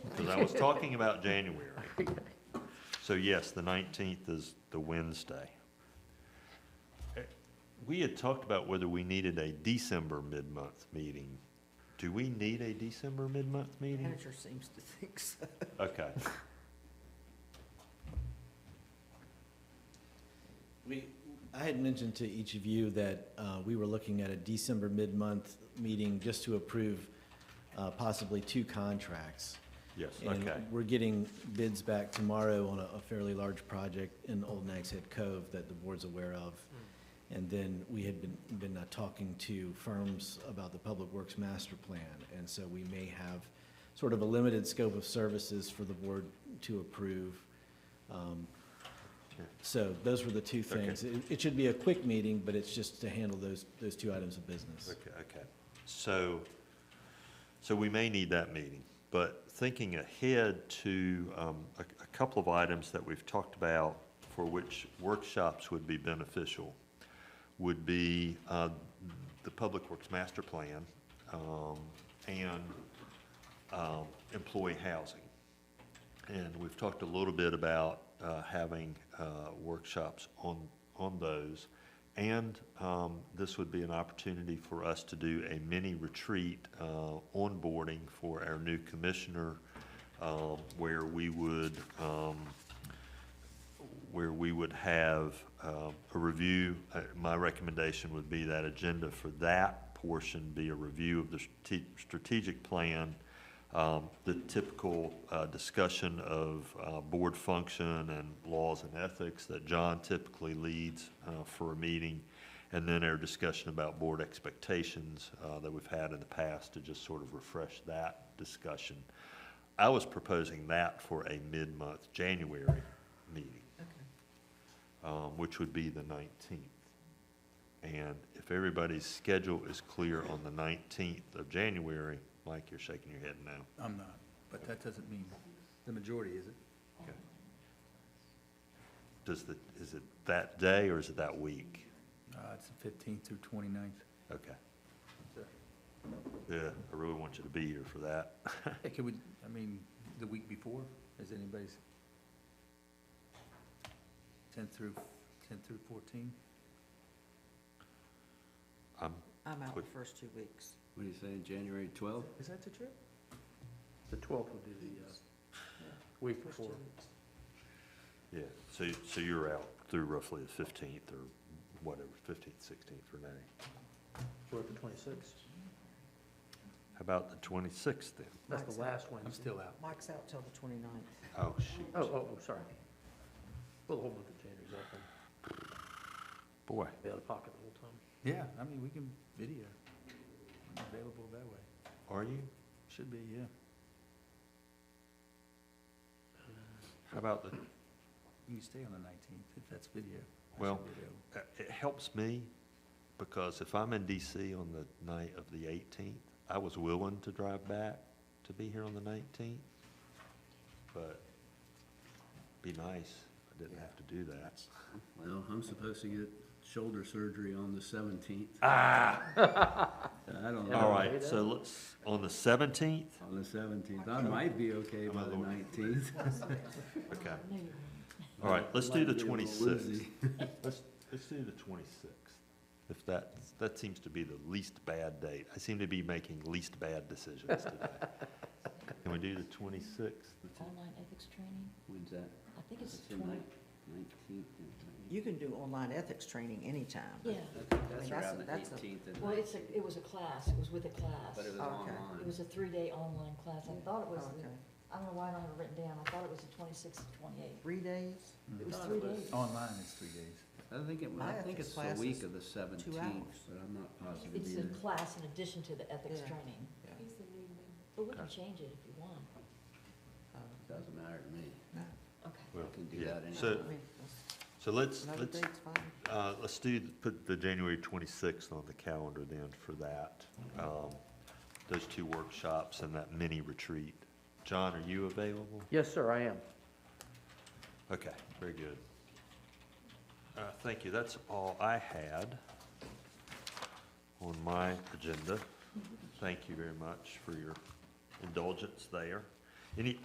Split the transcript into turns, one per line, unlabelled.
because I was talking about January. So yes, the nineteenth is the Wednesday. Eh, We had talked about whether we needed a December mid-month meeting. Do we need a December mid-month meeting?
Manager seems to think so.
Okay,
We, I had mentioned to each of you that uh, we were looking at a December mid-month meeting just to approve uh, possibly two contracts.
yes,
And
okay,
we're getting bids back tomorrow on a a fairly large project in Old Nags Head Cove that the board's aware of.
Hmm.
And then we had been, been uh, talking to firms about the Public Works Master Plan. And so we may have sort of a limited scope of services for the board to approve. Um,
Sure.
So those were the two things. It, it should be a quick meeting, but it's just to handle those, those two items of business.
okay, okay. So, so we may need that meeting, but thinking ahead to um, a a couple of items that we've talked about for which workshops would be beneficial would be uh, the Public Works Master Plan um, and um, employee housing. And we've talked a little bit about uh, having uh, workshops on, on those. And um, this would be an opportunity for us to do a mini retreat uh, onboarding for our new commissioner, um, where we would, um, where we would have um, a review. Uh, My recommendation would be that agenda for that portion be a review of the strate- strategic plan, um, the typical uh, discussion of uh, board function and laws and ethics that John typically leads uh, for a meeting, and then our discussion about board expectations uh, that we've had in the past to just sort of refresh that discussion. I was proposing that for a mid-month January meeting um, which would be the 19th. And if everybody's schedule is clear on the 19th of January, Mike, you're shaking your head now.
I'm not, but that doesn't mean the majority, is it?
Okay. Does the, is it that day or is it that week?
Uh, it's the fifteenth through twenty-ninth.
Okay. Yeah, I really want you to be here for that.
Hey, can we, I mean, the week before, is anybody's? Tenth through, tenth through fourteen?
I'm,
I'm out the first two weeks.
What do you say, January 12th?
Is that the trip? The twelfth would be the, uh, week
First two weeks.
yeah, so, so you're out through roughly the 15th or whatever, 15th, 16th, Renee.
We're at the twenty-sixth.
How about the 26th then?
That's
Mike's
the
out-
last one.
I'm still out.
Mike's out till the twenty-ninth.
Oh, shoot.
Oh, oh, oh, sorry. Well, the whole month of January's open.
Boy.
Be out of pocket the whole time.
Yeah, I mean, we can video. I'm available that way.
Are you?
Should be, yeah.
How about the
You can stay on the nineteenth if that's video. I should
Well,
be available.
Uh, It helps me, because if I'm in DC on the night of the 18th, I was willing to drive back to be here on the 19th, but be nice, if I didn't have to do that.
Well, I'm supposed to get shoulder surgery on the 17th.
Ah,
I don't
all
know.
right, so let's, on the 17th?
On the 17th. I might be okay by the 19th.
Okay. All right, let's do the
Might be a little
26th.
woozy.
Let's, let's do the 26th. If that, that seems to be the least bad date. I seem to be making least bad decisions today. Can we do the 26th? The
Online ethics training,
When's that?
I think it's
That's the
twenty,
night- 19th. and
You can do online ethics training anytime.
yeah,
20th.
I mean,
That's
that's a-
around the
that's a-
18th and
well,
19th,
it's a, it was a class, it was with a class.
but it was
okay.
It
online.
was a three-day online class, I thought it was,
Oh,
the-
Okay.
I don't know why I don't have it written down, I thought it was the twenty-sixth, twenty-eighth,
Three days,
it was three days.
Mm-hmm. Online is three days.
I think it, was-
My
I think
ethics
it's the week
class
of the 17th,
hours.
but I'm not positive
It's a
either.
class in addition to the ethics
Yeah.
training.
Yeah.
But we can
Okay.
change it if you want.
Doesn't matter to me.
Uh, no,
Okay.
Well,
I can do
yeah.
that
So,
I
anyway.
mean, that's-
so let's,
another
let's,
date's fine.
uh, let's do, put the January twenty-sixth on the calendar then for that. Um, those two workshops and that mini retreat. John, are you available?
Yes, sir, I am.
Okay, very good. Uh, thank you, that's all I had on my agenda. Thank you very much for your indulgence there. Any,